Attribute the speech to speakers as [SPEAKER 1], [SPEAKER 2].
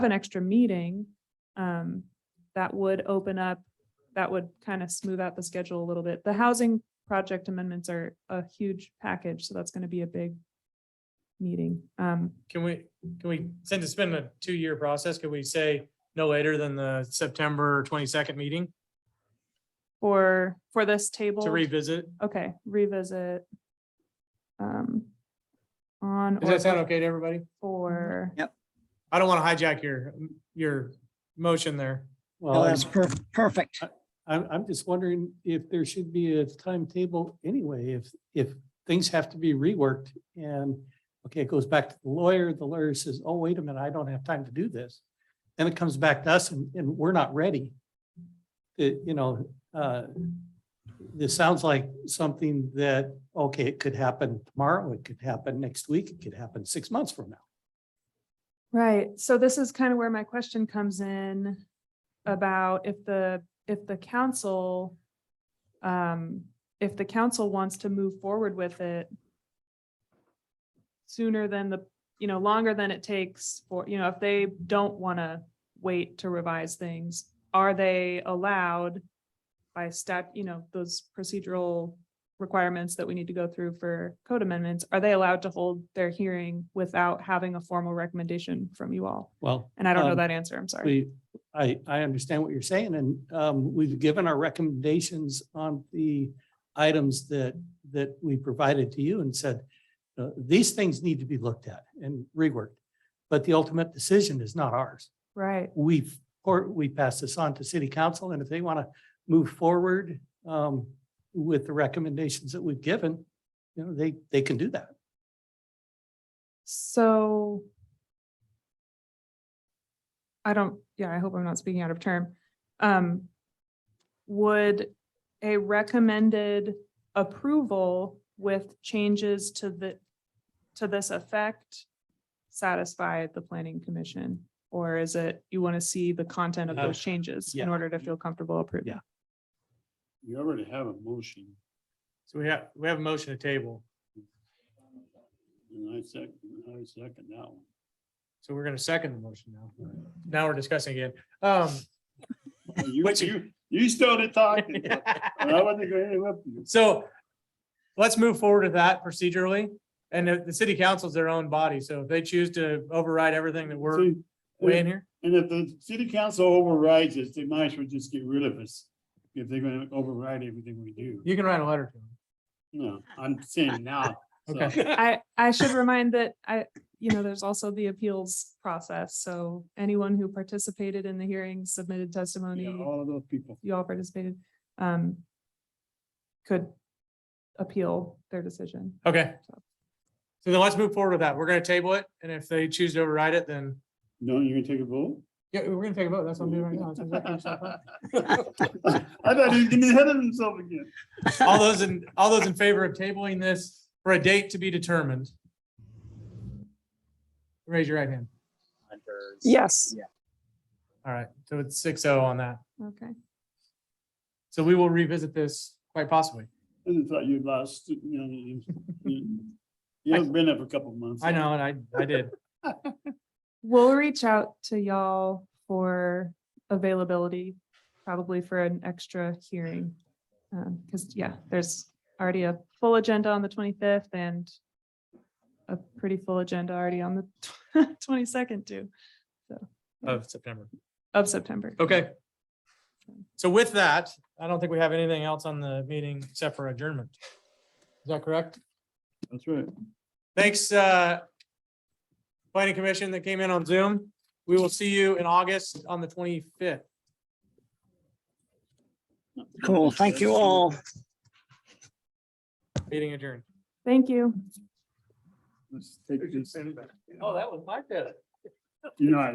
[SPEAKER 1] an extra meeting, um, that would open up, that would kind of smooth out the schedule a little bit. The housing project amendments are a huge package, so that's going to be a big meeting. Um,
[SPEAKER 2] Can we, can we, since it's been a two-year process, could we say no later than the September twenty-second meeting
[SPEAKER 1] for, for this table.
[SPEAKER 2] to revisit?
[SPEAKER 1] Okay, revisit. Um, on.
[SPEAKER 2] Does
[SPEAKER 1] or
[SPEAKER 2] that sound okay to everybody?
[SPEAKER 1] before-
[SPEAKER 2] I don't want to hijack your, your motion there.
[SPEAKER 3] No,
[SPEAKER 4] Well, I'm,
[SPEAKER 3] that's perf- perfect.
[SPEAKER 4] I'm, I'm just wondering if there should be a timetable anyway, if, if things have to be reworked and, okay, it goes back to the lawyer, the lawyer says, oh, wait a minute, I don't have time to do this. Then it comes back to us and, and we're not ready. It, you know, uh, this sounds like something that, okay, it could happen tomorrow, it could happen next week, it could happen six months from now.
[SPEAKER 1] Right, so this is kind of where my question comes in about if the, if the council, um, if the council wants to move forward with it sooner than the, you know, longer than it takes for, you know, if they don't want to wait to revise things, are they allowed by stat, you know, those procedural requirements that we need to go through for code amendments, are they allowed to hold their hearing without having a formal recommendation from you all?
[SPEAKER 4] Well.
[SPEAKER 1] And I don't know
[SPEAKER 4] um,
[SPEAKER 1] that answer, I'm sorry.
[SPEAKER 4] We, I, I understand what you're saying, and um, we've given our recommendations on the items that, that we provided to you and said, uh, these things need to be looked at and reworked, but the ultimate decision is not ours.
[SPEAKER 1] Right,
[SPEAKER 4] We've, or we pass this on to city council, and if they want to move forward um, with the recommendations that we've given, you know, they, they can do that.
[SPEAKER 1] so. I don't, yeah, I hope I'm not speaking out of term. Um, would a recommended approval with changes to the, to this effect satisfy the planning commission? Or is it, you want to see the content of
[SPEAKER 4] No.
[SPEAKER 1] those changes in
[SPEAKER 4] Yeah.
[SPEAKER 1] order to feel comfortable approving?
[SPEAKER 4] Yeah.
[SPEAKER 5] You already have a motion,
[SPEAKER 2] So we have, we have a motion to table.
[SPEAKER 5] and I second, I second that one.
[SPEAKER 2] So we're going to second the motion now. Now we're discussing it. Um,
[SPEAKER 5] Oh, You,
[SPEAKER 2] Which-
[SPEAKER 5] you, you started talking. and I wasn't gonna interrupt you.
[SPEAKER 2] So let's move forward with that procedurally. And the, the city council's their own body. So if they choose to override everything that we're
[SPEAKER 5] See,
[SPEAKER 2] weighing here.
[SPEAKER 5] And if the city council overrides us, they might as well just get rid of us, if they're gonna override everything we do.
[SPEAKER 2] You can write a letter to
[SPEAKER 5] No, I'm saying now. so,
[SPEAKER 2] them. Okay.
[SPEAKER 1] I, I should remind that I, you know, there's also the appeals process. So anyone who participated in the hearing, submitted testimony,
[SPEAKER 5] yeah, All of those people.
[SPEAKER 1] you all participated, um, could appeal their decision.
[SPEAKER 2] Okay. So then let's move forward with that. We're gonna table it, and if they choose to override it, then.
[SPEAKER 5] No, you're gonna take a vote?
[SPEAKER 2] Yeah, we're gonna take a vote. That's
[SPEAKER 5] I thought he was getting ahead of himself again.
[SPEAKER 2] All those in, all those in favor of tabling this for a date to be determined? Raise your right hand.
[SPEAKER 6] Yes.
[SPEAKER 2] All right, so it's six oh on that.
[SPEAKER 1] Okay.
[SPEAKER 2] So we will revisit this quite possibly.
[SPEAKER 5] I just thought you'd lost, you know, you, you, you haven't been there for a couple of months.
[SPEAKER 2] I know, and I, I did.
[SPEAKER 1] We'll reach out to y'all for availability, probably for an extra hearing. Um, cause yeah, there's already a full agenda on the twenty-fifth and a pretty full agenda already on the twenty-second too,
[SPEAKER 2] Of September.
[SPEAKER 1] of September.
[SPEAKER 2] Okay. So with that, I don't think we have anything else on the meeting except for adjournment. Is that correct?
[SPEAKER 5] That's right.
[SPEAKER 2] Thanks, uh, planning commission that came in on Zoom. We will see you in August on the twenty-fifth.
[SPEAKER 3] Cool. Thank you all.
[SPEAKER 2] Meeting adjourned.
[SPEAKER 1] Thank you.
[SPEAKER 5] Let's take this.
[SPEAKER 2] Oh, that was my bad.
[SPEAKER 5] You know, I